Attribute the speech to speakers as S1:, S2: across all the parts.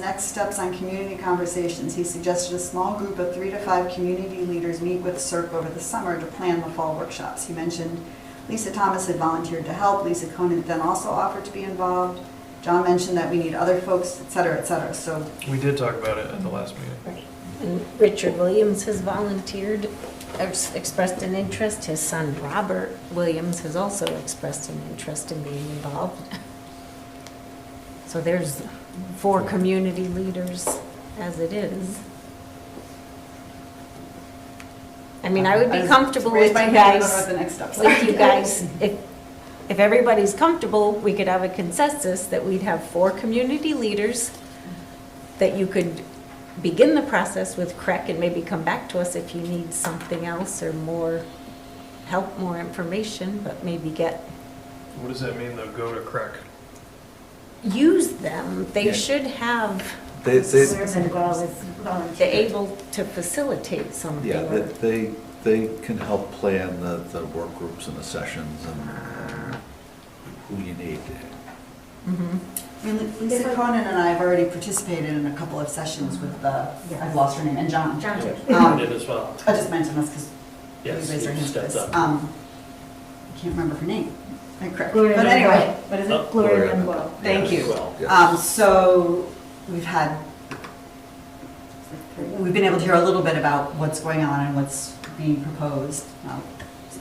S1: Next steps on community conversations, he suggested a small group of three to five community leaders meet with CERC over the summer to plan the fall workshops. He mentioned Lisa Thomas had volunteered to help, Lisa Conant then also offered to be involved. John mentioned that we need other folks, et cetera, et cetera, so
S2: We did talk about it at the last meeting.
S3: And Richard Williams has volunteered, ex- expressed an interest. His son, Robert Williams, has also expressed an interest in being involved. So there's four community leaders as it is. I mean, I would
S1: I
S3: be
S1: was-
S3: comfortable with
S1: raised
S3: you
S1: my hand, I don't know
S3: guys,
S1: what the next steps
S3: with you
S1: are.
S3: guys, if, if everybody's comfortable, we could have a consensus that we'd have four community leaders that you could begin the process with CREC and maybe come back to us if you need something else or more help, more information, but maybe get,
S2: What does that mean, though, go to crack?
S3: use them. They
S4: Yeah.
S3: should have,
S4: They, they,
S3: they're able to facilitate something.
S4: yeah,
S3: or-
S4: they, they they can help plan the, the work groups and the sessions and who you need.
S3: Mhm.
S1: I mean, Lisa Conan and I have already participated in a couple of sessions with the, I've lost her name, and John.
S5: I
S1: Um,
S5: did as well.
S1: I Oh, just mentioned this because you
S5: Yes,
S1: raised your
S5: you
S1: hand for
S5: stepped
S1: this.
S5: up.
S1: Um, I can't remember her name. Am I correct?
S6: Gloria
S1: But
S6: Manuel.
S1: anyway, what is it?
S5: Oh,
S6: Gloria
S4: Gloria
S6: Manuel.
S1: Thank you.
S5: Well,
S4: Yeah.
S1: Um, so we've had, we've been able to hear a little bit about what's going on and what's being proposed. Um,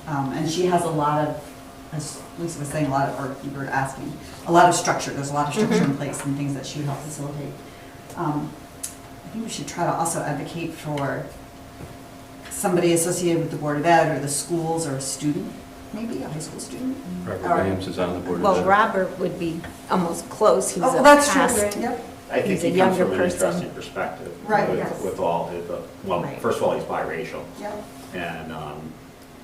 S1: um, And she has a lot of, as Lisa was saying, a lot of, or you were asking, a lot of structure. There's a lot of
S7: Mm-hmm.
S1: structure in place and things that she would help facilitate. Um, I think we should try to also advocate for somebody associated with the Board of Ed or the schools or a student, maybe a high school student.
S7: Robert
S1: All right.
S7: Williams is on the board. of
S3: Well,
S7: Ed.
S3: Robert would be almost close. He's
S1: Oh, well,
S3: a
S1: that's true,
S3: past
S1: Yep.
S8: I think
S3: He's a
S8: he comes
S3: younger
S8: from an
S3: person.
S8: interesting perspective.
S1: Right,
S8: with-
S1: yes.
S8: With all his, uh, well,
S3: Right.
S8: first of all, he's biracial,
S1: Yep.
S8: and, um,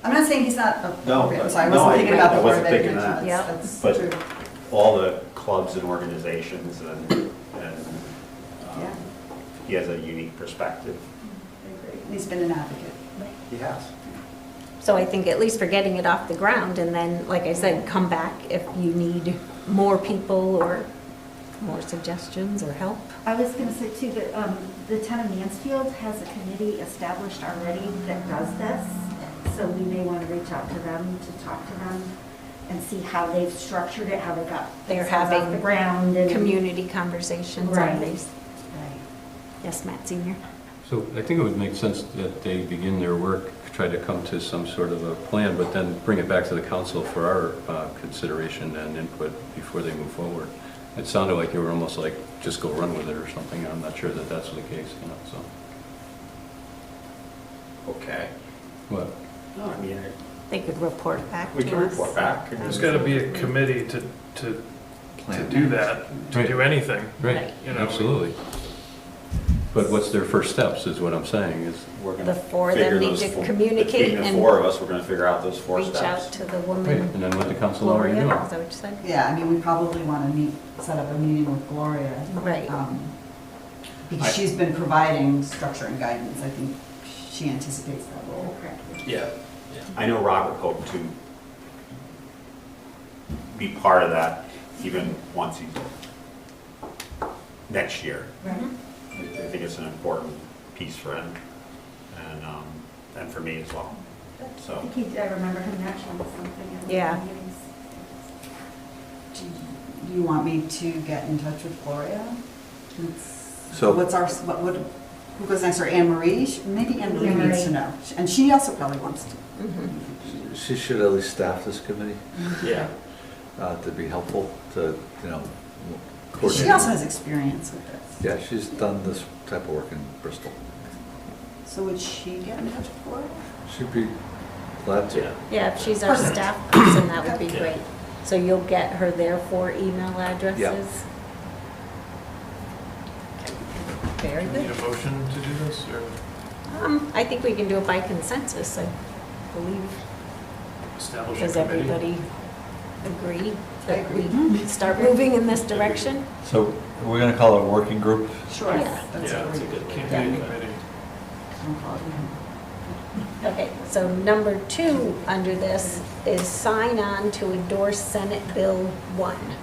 S1: I'm not saying he's not
S8: No,
S1: appropriate, I'm sorry, I
S8: no,
S1: wasn't
S8: I-
S1: thinking about
S8: I
S1: the word
S8: wasn't
S1: that you
S8: thinking that.
S1: mentioned.
S3: Yeah.
S1: That's
S8: But-
S1: true.
S8: all the clubs and organizations, and, and um,
S1: Yeah.
S8: he has a unique perspective.
S1: He's been an advocate.
S8: He has.
S3: So I think at least for getting it off the ground, and then, like I said, come back if you need more people or more suggestions or help.
S6: I was going to say too, that um, the town of Mansfield has a committee established already that does this, so we may want to reach out to them, to talk to them, and see how they've structured it, how they got
S3: They're
S6: things off the
S3: having
S6: ground and.
S3: community conversations on
S6: Right.
S3: these. Yes, Matt Senior.
S7: So I think it would make sense that they begin their work, try to come to some sort of a plan, but then bring it back to the council for our uh, consideration and input before they move forward. It sounded like they were almost like, just go run with it or something, and I'm not sure that that's the case, you know, so.
S8: Okay.
S7: What?
S8: No, I mean,
S3: They could report back to
S8: we
S3: us.
S8: can report back.
S2: There's got to be a committee to, to, to
S4: Plan.
S2: do that, to do anything.
S7: Right,
S3: Right.
S2: You know, we-
S7: absolutely. But what's their first steps is what I'm saying, is
S8: We're gonna
S3: The four of
S8: figure
S3: them need
S8: those
S3: to
S8: four-
S3: communicate
S8: Between
S3: and
S8: the four of us, we're gonna figure out those four
S3: Reach out
S8: steps.
S3: to the
S7: Right, and
S3: woman
S7: then let the council know what
S3: Gloria,
S7: you're
S3: is
S7: doing.
S3: that what you said?
S1: Yeah, I mean, we probably want to meet, set up a meeting with Gloria.
S3: Right.
S1: um, Because
S8: I-
S1: she's been providing structure and guidance, I think she anticipates that role.
S5: Yeah,
S8: I know Robert hoped to be part of that even once he's next year.
S6: Right.
S3: Mm-hmm.
S8: I I think it's an important piece for him and, um, and for me as well.
S6: I
S8: So,
S6: think he, I remember him mentioning something. in the
S3: Yeah.
S6: meetings.
S1: Do you want me to get in touch with Gloria? It's-
S4: So-
S1: What's our, what, what- who goes next, or Anne Marie? She- Maybe Anne Marie
S6: Anne Marie.
S1: needs to know, and she also probably wants to.
S3: Mm-hmm.
S4: She should at least staff this committee,
S5: yeah.
S4: uh, to be helpful, to, you know,
S1: She also
S4: coordinate.
S1: has experience with this.
S4: Yeah, she's done this type of work in Bristol.
S1: So would she get in touch with Gloria?
S4: She'd be glad to.
S5: Yeah.
S3: Yeah, if she's our staff person, that would be
S5: Yeah.
S3: great. So you'll get her their four email addresses? Very
S2: Do we need
S3: good.
S2: a motion to do this, or
S3: Um, I think we can do it by consensus, I believe.
S2: establish a
S3: Does
S2: committee?
S3: everybody agree that
S1: agree.
S3: we start moving in this direction?
S4: So we're gonna call it a working group?
S1: Sure.
S3: Yeah.
S1: That's
S2: Yeah,
S1: what
S2: it's a
S1: we-
S2: good
S3: Yeah.
S2: community committee.
S1: Don't call it, yeah.
S3: Okay, so number two under this is sign on to endorse Senate Bill 1.